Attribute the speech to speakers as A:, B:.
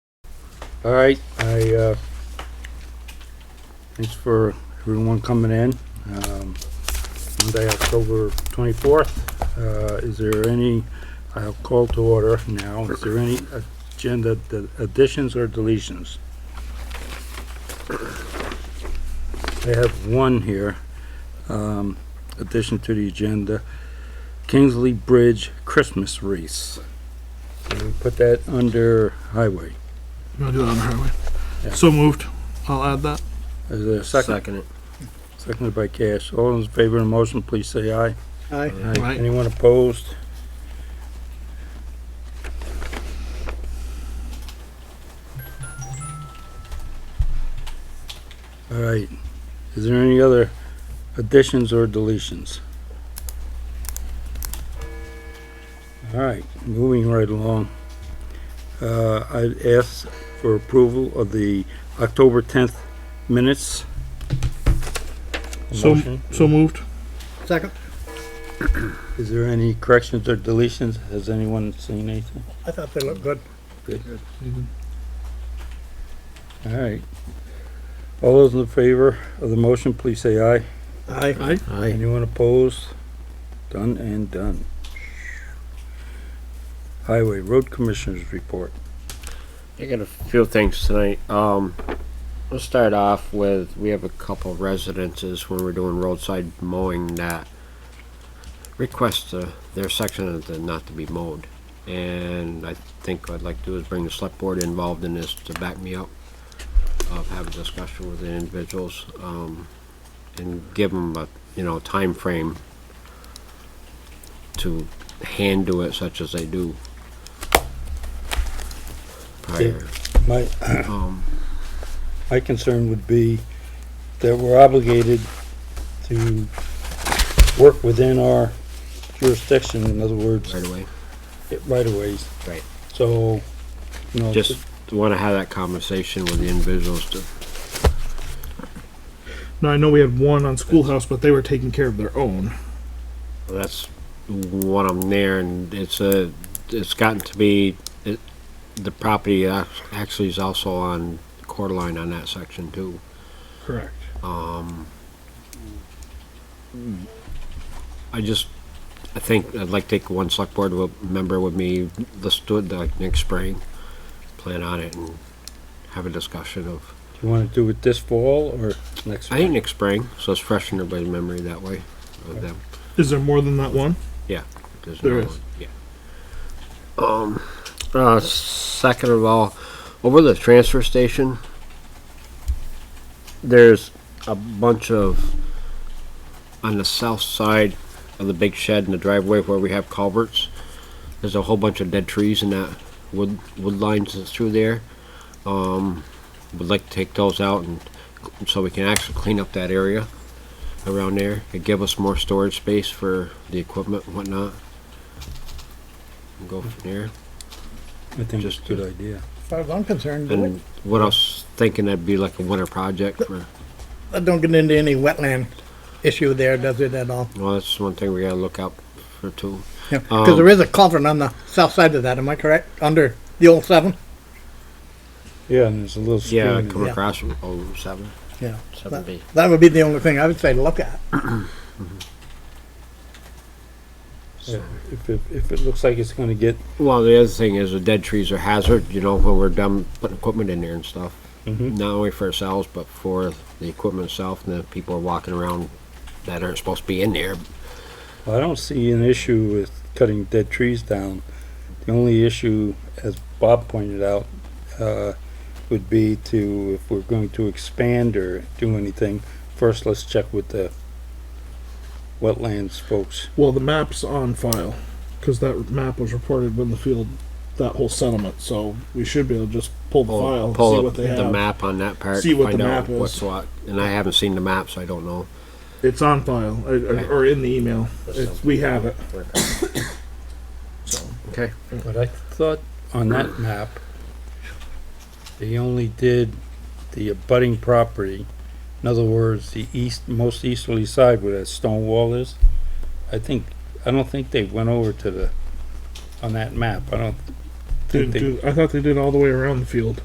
A: All right, I, uh, thanks for everyone coming in. Um, Monday, October twenty-fourth, uh, is there any, I'll call to order now, is there any agenda d- additions or deletions? I have one here, um, addition to the agenda, Kingsley Bridge Christmas wreath. Can we Put that under highway.
B: You wanna do that on the highway?
A: Yeah.
B: So moved. I'll add that.
A: Is there a second?
C: Second it.
A: Seconded by Cash. All in favor of the motion, please say aye.
D: Aye.
B: Aye.
A: Anyone opposed? All right. Is there any other additions or deletions? All right, moving right along. Uh, I'd ask for approval of the October tenth minutes.
B: So,
A: Motion.
B: so moved.
D: Second?
A: Is there any corrections or deletions? Has anyone seen anything?
D: I thought they looked good.
A: All right. All those in favor of the motion, please say aye.
D: Aye.
B: Aye.
C: Aye.
A: Anyone opposed? Done and done. Highway Road Commissioners Report.
C: I got a few things tonight. Um, let's start off with, we have a couple residences when we're doing roadside mowing that request uh, their section of the not to be mowed. And I think what I'd like to do is bring the select board involved in this to back me up. Of have a discussion with the individuals, um, and give them a, you know, time frame to hand do it such as they do. Prior.
A: My,
C: Um,
A: my concern would be that we're obligated to work within our jurisdiction, in other words,
C: right away.
A: right of ways.
C: Right.
A: So, you know.
C: Just want to have that conversation with the individuals to,
B: Now, I know we had one on schoolhouse, but they were taking care of their own.
C: that's what I'm there and it's a, it's gotten to be, it, the property ac- actually is also on Coeur d'Alene on that section too.
B: Correct.
C: I just, I think I'd like to take one select board wi- member with me, let's do it like next spring, plan on it and have a discussion of,
A: You wanna do it this fall or next?
C: I think next spring, so it's fresh in everybody's memory that way, of them.
B: Is there more than that one?
C: There's
B: There
C: no-
B: is.
C: Yeah. Um, uh, second of all, over the transfer station, there's a bunch of, on the south side of the big shed in the driveway where we have culverts, there's a whole bunch of dead trees in that wood, wood lines that's through there. Um, would like to take those out and, so we can actually clean up that area around there. It'd give us more storage space for the equipment and whatnot. And Go from there.
A: I think it's a
C: Just-
A: good idea.
D: As far as I'm concerned, do it.
C: And what I was thinking that'd be like a winter project for,
D: That don't get into any wetland issue there, does it at all?
C: well, that's one thing we gotta look out for too.
D: Yeah, because
C: Um,
D: there is a culvert on the south side of that, am I correct? Under the old seven?
A: Yeah, and there's a little stream.
C: Yeah,
A: in
C: come
A: there.
D: Yeah.
C: across from oh seven,
D: Yeah.
C: seven B.
D: That would be the only thing I would say to look at.
A: Yeah, If, it if it looks like it's gonna get,
C: Well, the other thing is the dead trees are hazard, you know, when we're done putting equipment in there and stuff.
B: Mm-hmm.
A: Mhm.
C: Not only for ourselves, but for the equipment itself and the people are walking around that aren't supposed to be in there.
A: I don't see an issue with cutting dead trees down. The only issue, as Bob pointed out, uh, would be to, if we're going to expand or do anything, first let's check with the wetlands folks.
B: Well, the map's on file, cause that map was reported when the field, that whole settlement, so we should be able to just pull the
C: Pull,
B: file,
C: pull
B: see
C: up
B: what they
C: the
B: have.
C: map on that part.
B: See what
C: find
B: the
C: out
B: map is.
C: What's what, and I haven't seen the map, so I don't know.
B: It's on file, or, or- or in the email. It's, we have it. So,
C: Okay.
A: But I thought on that map, they only did the abutting property. In other words, the east, most easterly side where that stone wall is. I think, I don't think they went over to the, on that map. I don't
B: didn't
A: think they
B: do, I thought they did all the way around the field.